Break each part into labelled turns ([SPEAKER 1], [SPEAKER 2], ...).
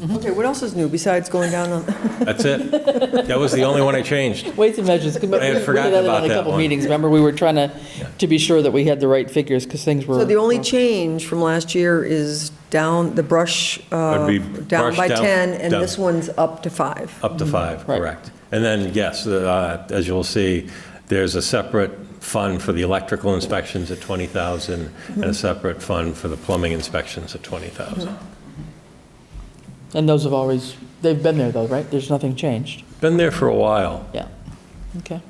[SPEAKER 1] Mm-hmm.
[SPEAKER 2] Okay, what else is new besides going down on,
[SPEAKER 1] That's it. That was the only one I changed.
[SPEAKER 3] Weights and measures.
[SPEAKER 1] I had forgotten about
[SPEAKER 3] In a
[SPEAKER 1] that
[SPEAKER 3] couple
[SPEAKER 1] one.
[SPEAKER 3] meetings, remember, we were trying to, to be sure that we had the right figures, because things were.
[SPEAKER 2] so the only change from last year is down, the brush, uh,
[SPEAKER 1] Would be
[SPEAKER 2] down
[SPEAKER 1] brush
[SPEAKER 2] by
[SPEAKER 1] down-
[SPEAKER 2] 10, and
[SPEAKER 1] down.
[SPEAKER 2] this one's up to five.
[SPEAKER 1] Up to five,
[SPEAKER 3] Right.
[SPEAKER 1] correct. And then, yes, uh, as you'll see, there's a separate fund for the electrical inspections at 20,000 and a separate fund for the plumbing inspections at 20,000.
[SPEAKER 3] And those have always, they've been there though, right? There's nothing changed.
[SPEAKER 1] Been there for a while.
[SPEAKER 3] Yeah. Okay.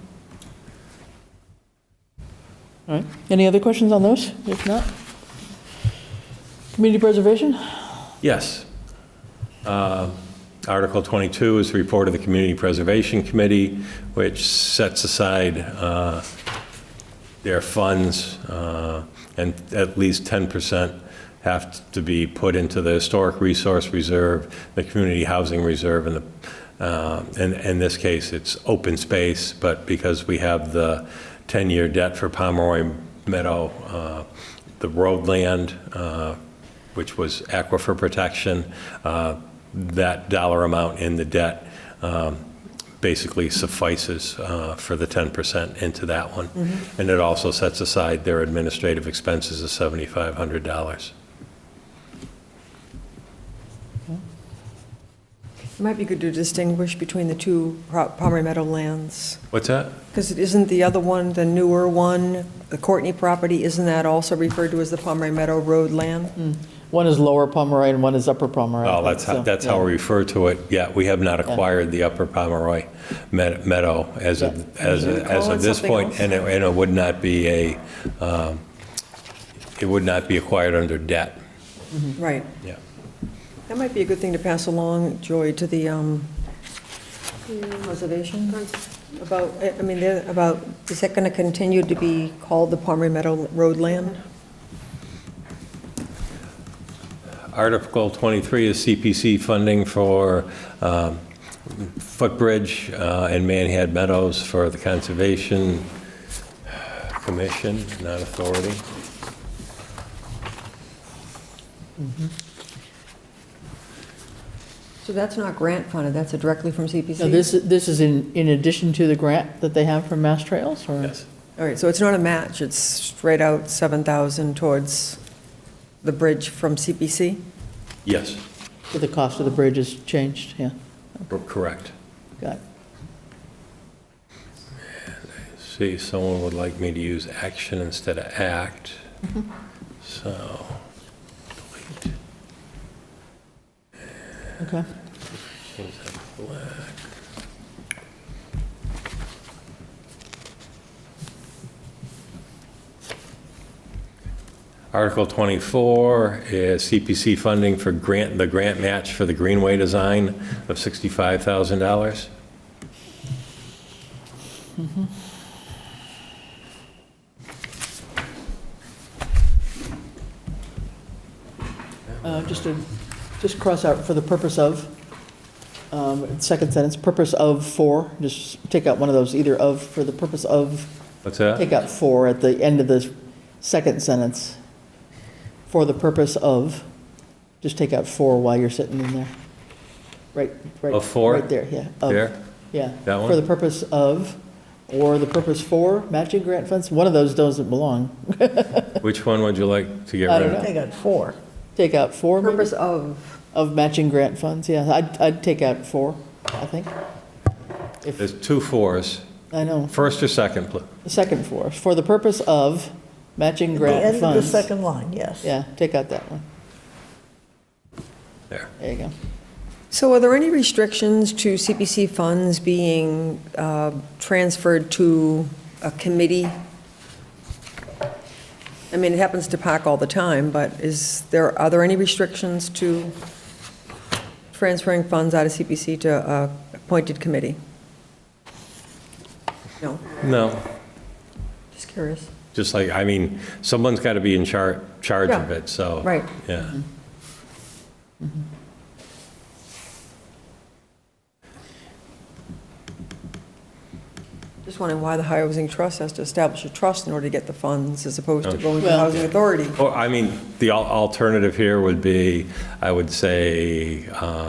[SPEAKER 3] All right. Any other questions on those? If not? Community preservation?
[SPEAKER 1] Yes. Uh, Article 22 is the report of the Community Preservation Committee, which sets aside uh, their funds, uh, and at least 10% have to be put into the Historic Resource Reserve, the Community Housing Reserve, and the, uh, and in this case, it's open space, but because we have the 10-year debt for Pomeroy Meadow, uh, the roadland, uh, which was aquifer protection, uh, that dollar amount in the debt um, basically suffices uh, for the 10% into that one. And it also sets aside their administrative expenses of $7,500.
[SPEAKER 2] It might be good to distinguish between the two Pro- Palmer Meadow lands,
[SPEAKER 1] What's that?
[SPEAKER 2] because isn't the other one, the newer one, the Courtney property, isn't that also referred to as the Palmer Meadow Road
[SPEAKER 1] Mm-hmm.
[SPEAKER 2] land?
[SPEAKER 3] One is lower Pomeroy and one is upper Pomeroy.
[SPEAKER 1] Well, Oh, that's, how-
[SPEAKER 3] So,
[SPEAKER 1] that's how
[SPEAKER 3] yeah.
[SPEAKER 1] we refer to it. Yeah, we have not acquired the Upper Pomeroy Med- Meadow as of, as
[SPEAKER 2] Can you
[SPEAKER 1] of- as
[SPEAKER 2] call it
[SPEAKER 1] of this
[SPEAKER 2] something
[SPEAKER 1] point,
[SPEAKER 2] else?
[SPEAKER 1] and it, and it would not be a, um, it would not be acquired under debt.
[SPEAKER 2] Right.
[SPEAKER 1] Yeah.
[SPEAKER 2] That might be a good thing to pass along, Joy, to the um, conservation, about, I I mean, they're- about, is that going to continue to be called the Palmer Meadow Road land?
[SPEAKER 1] Article 23 is CPC funding for um, footbridge uh, and Manhad Meadows for the Conservation Commission, not authority.
[SPEAKER 2] So that's not grant funded, that's a directly from CPC?
[SPEAKER 3] Now, this, this is in, in addition to the grant that they have from Mass Trails or?
[SPEAKER 1] Yes.
[SPEAKER 2] All right, so it's not a match, it's straight out 7,000 towards the bridge from CPC?
[SPEAKER 1] Yes,
[SPEAKER 3] But the cost of the bridge has changed, yeah.
[SPEAKER 1] correct.
[SPEAKER 3] Got it.
[SPEAKER 1] See, someone would like me to use action instead of act, so. delete.
[SPEAKER 3] Okay.
[SPEAKER 1] Change that to black. Article 24 is CPC funding for grant, the grant match for the Greenway design of $65,000.
[SPEAKER 3] Uh, Just to, just cross out for the purpose of, um, second sentence, purpose of for, just take out one of those, either of, for the purpose of,
[SPEAKER 1] What's that?
[SPEAKER 3] take out for at the end of the second sentence. For the purpose of, just take out for while you're sitting in there. Right, right.
[SPEAKER 1] Of for?
[SPEAKER 3] Right there, yeah. of.
[SPEAKER 1] There?
[SPEAKER 3] Yeah.
[SPEAKER 1] That one?
[SPEAKER 3] For the purpose of, or the purpose for matching grant funds, one of those doesn't belong.
[SPEAKER 1] Which one would you like to get rid
[SPEAKER 3] I don't
[SPEAKER 1] of?
[SPEAKER 3] know.
[SPEAKER 4] They got four.
[SPEAKER 3] Take out for maybe?
[SPEAKER 2] Purpose of,
[SPEAKER 3] Of matching grant funds, yeah, I'd, I'd take out four, I think. If,
[SPEAKER 1] There's two fours,
[SPEAKER 3] I know,
[SPEAKER 1] first or second, pl-
[SPEAKER 3] the second four, for the purpose of matching
[SPEAKER 4] The
[SPEAKER 3] grant
[SPEAKER 4] end of the
[SPEAKER 3] funds.
[SPEAKER 4] second line, yes.
[SPEAKER 3] Yeah, take out that one,
[SPEAKER 1] there.
[SPEAKER 3] there you go.
[SPEAKER 2] so are there any restrictions to CPC funds being uh, transferred to a committee? I mean, it happens to PAC all the time, but is there, are there any restrictions to transferring funds out of CPC to a appointed committee? No,
[SPEAKER 1] No,
[SPEAKER 2] just curious.
[SPEAKER 1] just like, I mean, someone's got to be in char, charge of
[SPEAKER 2] Yeah,
[SPEAKER 1] it, so.
[SPEAKER 2] right.
[SPEAKER 1] Yeah.
[SPEAKER 2] Just wondering why the Housing Trust has to establish a trust in order to get the funds as opposed to going to the
[SPEAKER 3] Well-
[SPEAKER 2] Housing Authority.
[SPEAKER 1] Or, I mean, the al- alternative here would be, I would say, uh,